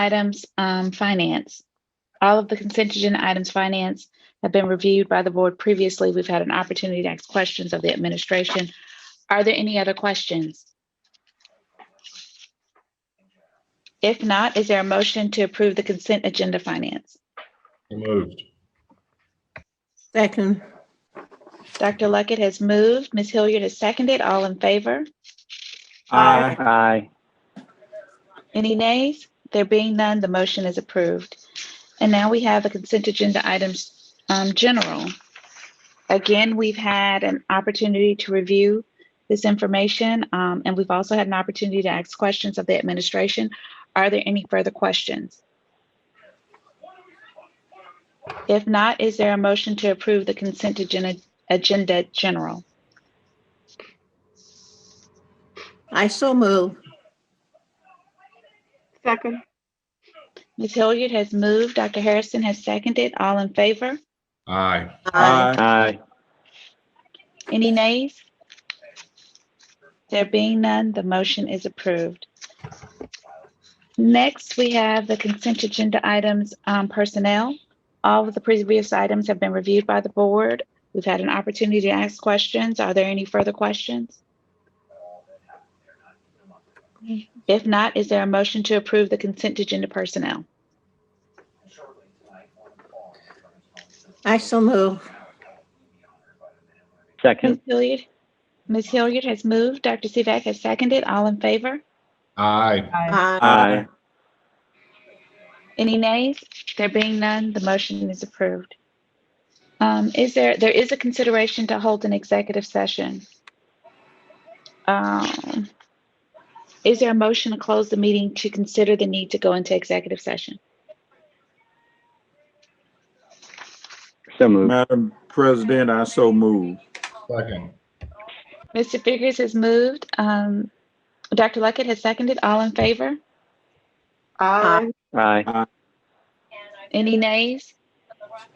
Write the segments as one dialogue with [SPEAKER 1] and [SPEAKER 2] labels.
[SPEAKER 1] items, um, finance. All of the consent agenda items, finance, have been reviewed by the board previously. We've had an opportunity to ask questions of the administration. Are there any other questions? If not, is there a motion to approve the consent agenda finance?
[SPEAKER 2] So moved.
[SPEAKER 3] Second.
[SPEAKER 1] Dr. Luckett has moved. Ms. Hilliard has seconded. All in favor?
[SPEAKER 3] Aye.
[SPEAKER 4] Aye.
[SPEAKER 1] Any nays? There being none, the motion is approved. And now we have the consent agenda items, um, general. Again, we've had an opportunity to review this information, um, and we've also had an opportunity to ask questions of the administration. Are there any further questions? If not, is there a motion to approve the consent agenda, agenda general?
[SPEAKER 3] I so move.
[SPEAKER 5] Second.
[SPEAKER 1] Ms. Hilliard has moved. Dr. Harrison has seconded. All in favor?
[SPEAKER 2] Aye.
[SPEAKER 4] Aye.
[SPEAKER 1] Any nays? There being none, the motion is approved. Next, we have the consent agenda items um, personnel. All of the previous items have been reviewed by the board. We've had an opportunity to ask questions. Are there any further questions? If not, is there a motion to approve the consent agenda personnel?
[SPEAKER 3] I so move.
[SPEAKER 1] Ms.
[SPEAKER 4] Second.
[SPEAKER 1] Hilliard, Ms. Hilliard has moved. Dr. Sivak has seconded. All in favor?
[SPEAKER 2] Aye.
[SPEAKER 4] Aye.
[SPEAKER 1] Any nays? There being none, the motion is approved. Um, is there, there is a consideration to hold an executive session. Um, is there a motion to close the meeting to consider the need to go into executive session?
[SPEAKER 4] So moved.
[SPEAKER 6] Madam President, I so move.
[SPEAKER 2] Second.
[SPEAKER 1] Mr. Figures has moved. Um, Dr. Luckett has seconded. All in favor?
[SPEAKER 5] Aye.
[SPEAKER 4] Aye.
[SPEAKER 1] Any nays?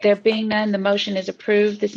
[SPEAKER 1] There being none, the motion is approved. This